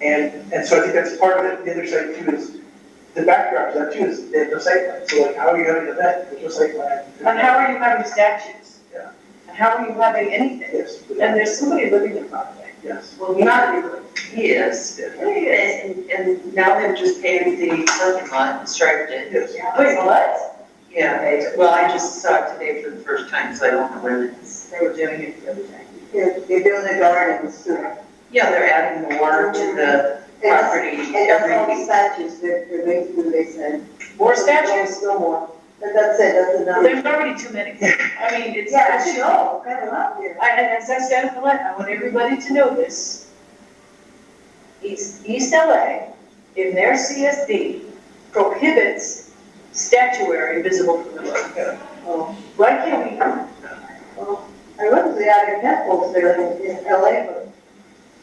And, and so I think that's part of it, the other side too is, the backdrop to that too is, they have no site plan, so like, how are you having an event, with no site plan? And how are you having statues? Yeah. And how are you having anything? Yes, And there's somebody living in Broadway. yes. Well, not really. He is. yes, And, and now they've just paved the parking lot and striped it. Yes. Wait, what? Yeah, they- well, I just saw it today for the first time, so I don't know where it is. They were doing it the other day. They're, they're doing the gardens too. And Yeah, they're adding more to the it's- property and it's all every the week. statues, they're, they're making, they said. More statues? No more. But that's it, that's enough. There's already too many. I mean, it's. Yeah, I should know, kind of up here. I, and as I said, I want- I want everybody to know this. East, East LA, in their CSD, prohibits statuary visible from the road. Oh, Why can't we, well, I went to the Iron Temples there in, in LA, but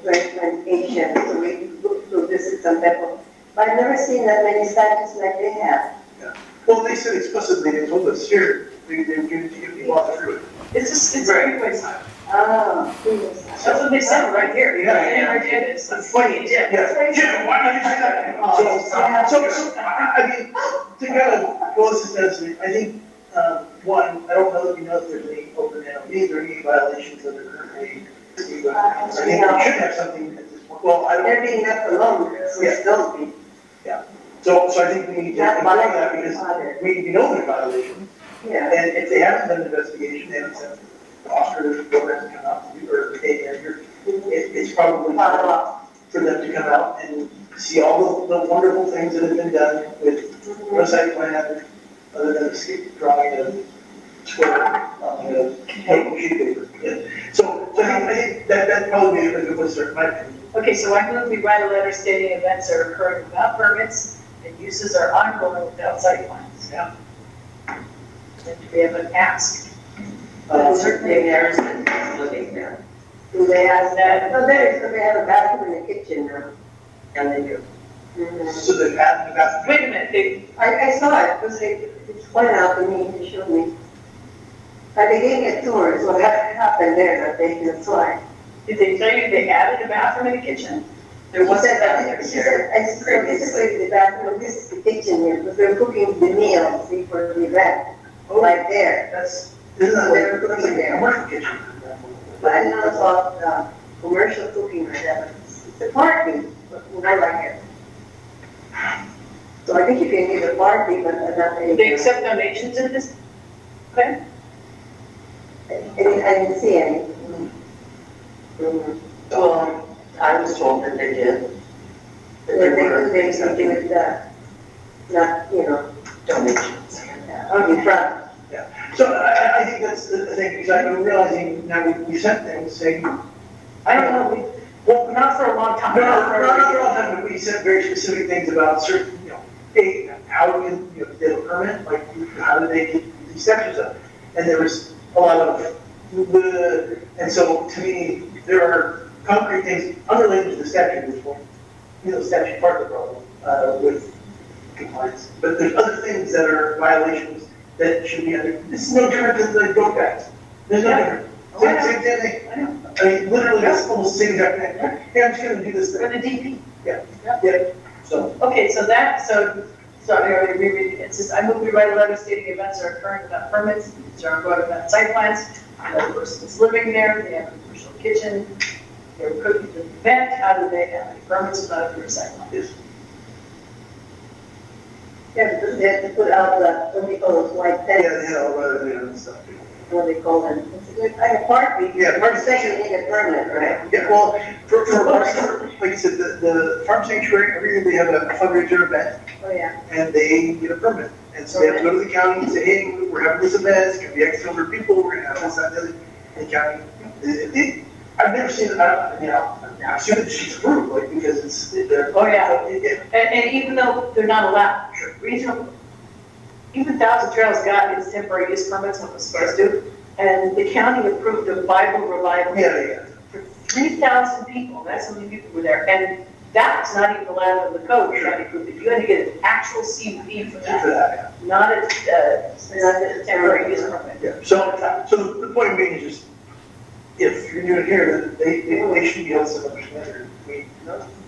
when, when ancient, so we looked to visit some temples. But I've never seen that many statues like they have. Well, they said explicitly, they told us here, they, they would give it to you if you walked through it. it's a, it's a Right. freeway sign. Ah, Jesus. That's what they said right here. Yeah, yeah. And right here it is. It's funny, it did. That's right. Yeah, why did you say that? So, so, so, I, I mean, to kind of go this essentially, I think, um, one, I don't know if you know if there's any open NLPs or any violations that are currently. being done. I think we should have something at this point, well, I don't, They're being left alone, so it's still be. so, so I think we need to Not ignore by that because we, we know they're violations. Yeah. And if they haven't done an investigation, they haven't sent officers, programs to come out to do, or they, it, it's probably Follow-up. for them to come out and see all the, the wonderful things that have been done with no site plan, other than a skip drawing of square, um, you know, paper, sheet paper. Yeah. So, so I think, I think that, that probably is a good one, sir, in my opinion. Okay, so I move we write a letter stating events are occurring without permits and uses are ongoing without site plans. Yeah. And do we have an ask? But Um, certainly there is a living there, Do they ask that? Oh, there's, they have a bathroom and a kitchen now. and they do. Mm-hmm. So the path, the path. Wait a minute, they, I, I saw it, it was, like- it was pointed out to me, he showed me. But they gave me a tour, so that happened there, that they can fly. did they tell you they added a bathroom and a kitchen? There wasn't that there. She said, I said, this is like the bathroom, this is the kitchen here, because they're cooking the meals before the event, right there. Oh, That's, this is a, They're this is cooking a there. commercial kitchen. But I know it's all, uh, commercial cooking or whatever. It's a party, but I like it. So I think you can give a party, but not Do anything. they accept donations at this? Okay, I didn't, I didn't see any. Mm. Well, I was told that they did. That They, there were they, they something with that, not, you know, donations. on the front. So I- I, I think that's the the thing, because I'm realizing now we, we sent them saying, I don't know, we, well, not for a long time. No, no, no, not for all time, but we said very specific things about certain, you know, hey, how do you, you know, get a permit, like, how do they get these sections up? And there was a lot of, "Bleh." and so to me, there are concrete things unrelated to the statute at this point. You know, statute part of the problem, uh, with compliance, but there's other things that are violations that should be under, this is no different than the go back. There's no Yeah. different. Same, same thing, I know, I mean, literally, that's almost the same exact thing, hey, I'm just gonna do this thing. for the DP. So, Okay, so that, so, sorry, I already reread it. It says, I move we write a letter stating events are occurring without permits, which are going without site plans. No person's living there, they have a commercial kitchen, they're cooking the event, how do they have any permits without a clear site plan? it's, Yeah, because they have to put out the, what do you call those white yeah, tents, yeah, rather than stuff. what do they call them? It's like, I have party, Yeah, or farm second sanctuary, in a permit, right? yeah, well, for, for, for- like you said, the, the farm sanctuary, every year they have a fundraiser event, Oh, yeah. and they get a permit. And so they have to go to the county and say, hey, we're having this event, it's gonna be X number of people, we're gonna have this, that, and the other. And the county, it, it, I've never seen, I, you know, I assume it's just approved, like, because it's, they're. Oh, yeah. Yeah, And, and even though they're not allowed, regional, even Thousand Trails got its temporary use permits, what was supposed to, and the county approved a Bible reliable yeah, yeah. for three thousand people, that's how many people were there, and that was not even allowed on the code, we tried to prove it, you had to get an actual CUP for For that, that. not a, uh, not a temporary use permit. Yeah, so, uh, so the point being is, just if you're new here, they, they they should be held to some standard. We,